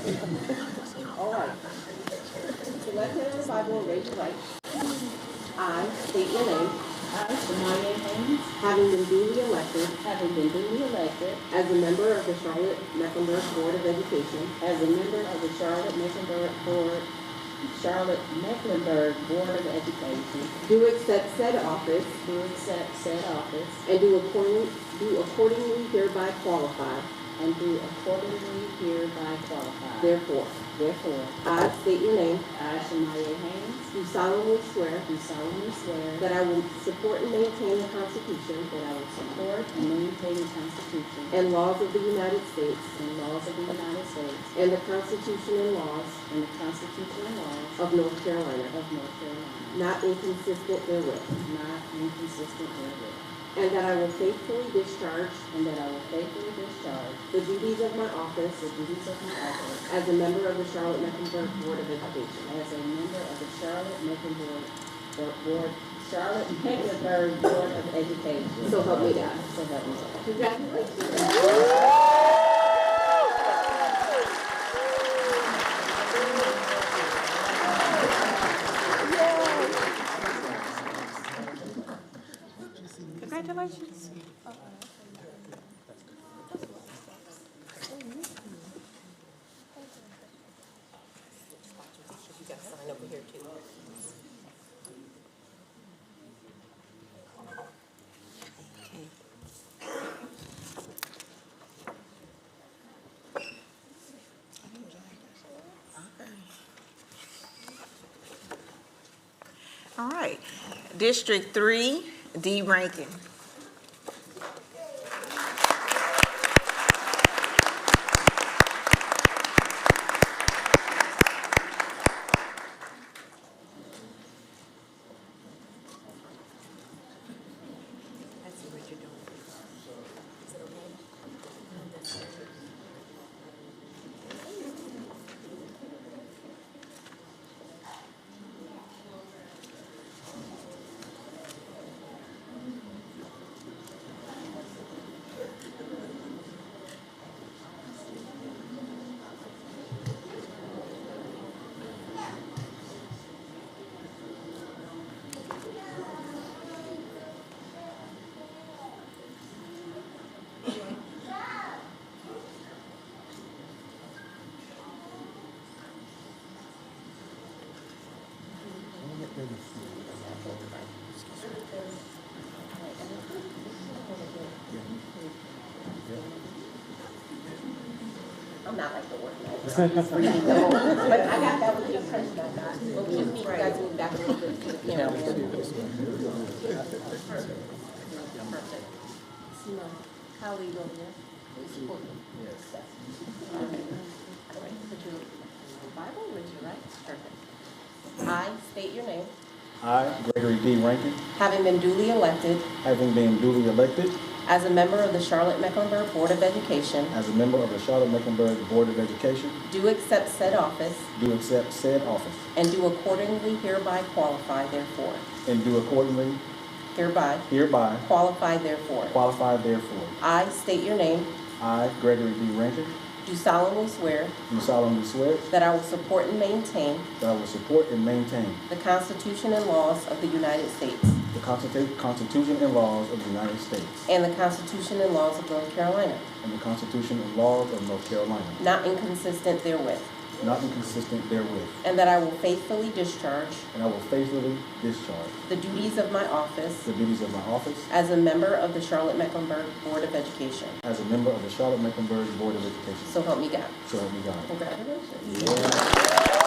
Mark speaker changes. Speaker 1: All right. So left hand on the Bible and raise your right. I state your name,
Speaker 2: I, Shemaya Haynes,
Speaker 1: having been duly elected
Speaker 2: having been duly elected
Speaker 1: as a member of the Charlotte Mecklenburg Board of Education
Speaker 2: as a member of the Charlotte Mecklenburg Board, Charlotte Mecklenburg Board of Education,
Speaker 1: Do accept said office
Speaker 2: do accept said office
Speaker 1: and do accordingly, do accordingly hereby qualify.
Speaker 2: and do accordingly hereby qualify.
Speaker 1: Therefore,
Speaker 2: Therefore,
Speaker 1: I state your name,
Speaker 2: I, Shemaya Haynes,
Speaker 1: do solemnly swear
Speaker 2: do solemnly swear that
Speaker 1: that I will support and maintain the Constitution
Speaker 2: I will support and maintain the Constitution
Speaker 1: and laws of the United States
Speaker 2: and laws of the United States
Speaker 1: and the Constitution and laws
Speaker 2: and the Constitution and laws
Speaker 1: of North Carolina,
Speaker 2: of North Carolina,
Speaker 1: not inconsistent therewith,
Speaker 2: not inconsistent therewith,
Speaker 1: and that I will faithfully discharge
Speaker 2: and that I will faithfully discharge
Speaker 1: the duties of my
Speaker 2: The
Speaker 1: office
Speaker 2: duties of my office
Speaker 1: as a member of the Charlotte Mecklenburg Board of Education.
Speaker 2: as a member of the Charlotte Mecklenburg Board, Charlotte Mecklenburg Board of Education.
Speaker 1: So help me God.
Speaker 2: So help me God.
Speaker 1: Congratulations.
Speaker 3: Congratulations. All right. District three, D Rankin.
Speaker 1: I'm not like the word. But I got that with the impression I got. Well, we just need you guys to move back a little bit to the camera. See my colleague over there? All right, put your Bible with you, right? Perfect. I state your name,
Speaker 4: I, Gregory D. Rankin,
Speaker 1: having been duly elected
Speaker 4: having been duly elected
Speaker 1: as a member of the Charlotte Mecklenburg Board of Education,
Speaker 4: as a member of the Charlotte Mecklenburg Board of Education,
Speaker 1: do accept said office
Speaker 4: do accept said office
Speaker 1: and do accordingly hereby qualify therefore.
Speaker 4: and do accordingly
Speaker 1: Hereby
Speaker 4: hereby
Speaker 1: qualify therefore.
Speaker 4: qualify therefore.
Speaker 1: I state your name,
Speaker 4: I, Gregory D. Rankin,
Speaker 1: do solemnly swear
Speaker 4: do solemnly swear
Speaker 1: that I will support and maintain
Speaker 4: that I will support and maintain
Speaker 1: the Constitution and laws of the United States
Speaker 4: the Constitu- Constitution and laws of the United States
Speaker 1: and the Constitution and laws of North Carolina,
Speaker 4: and the Constitution and laws of North Carolina,
Speaker 1: not inconsistent therewith,
Speaker 4: not inconsistent therewith,
Speaker 1: and that I will faithfully discharge
Speaker 4: and I will faithfully discharge
Speaker 1: the duties of my office
Speaker 4: the duties of my office
Speaker 1: as a member of the Charlotte Mecklenburg Board of Education.
Speaker 4: as a member of the Charlotte Mecklenburg Board of Education.
Speaker 1: So help me God.
Speaker 4: So help me God.
Speaker 1: Congratulations.
Speaker 4: Yeah.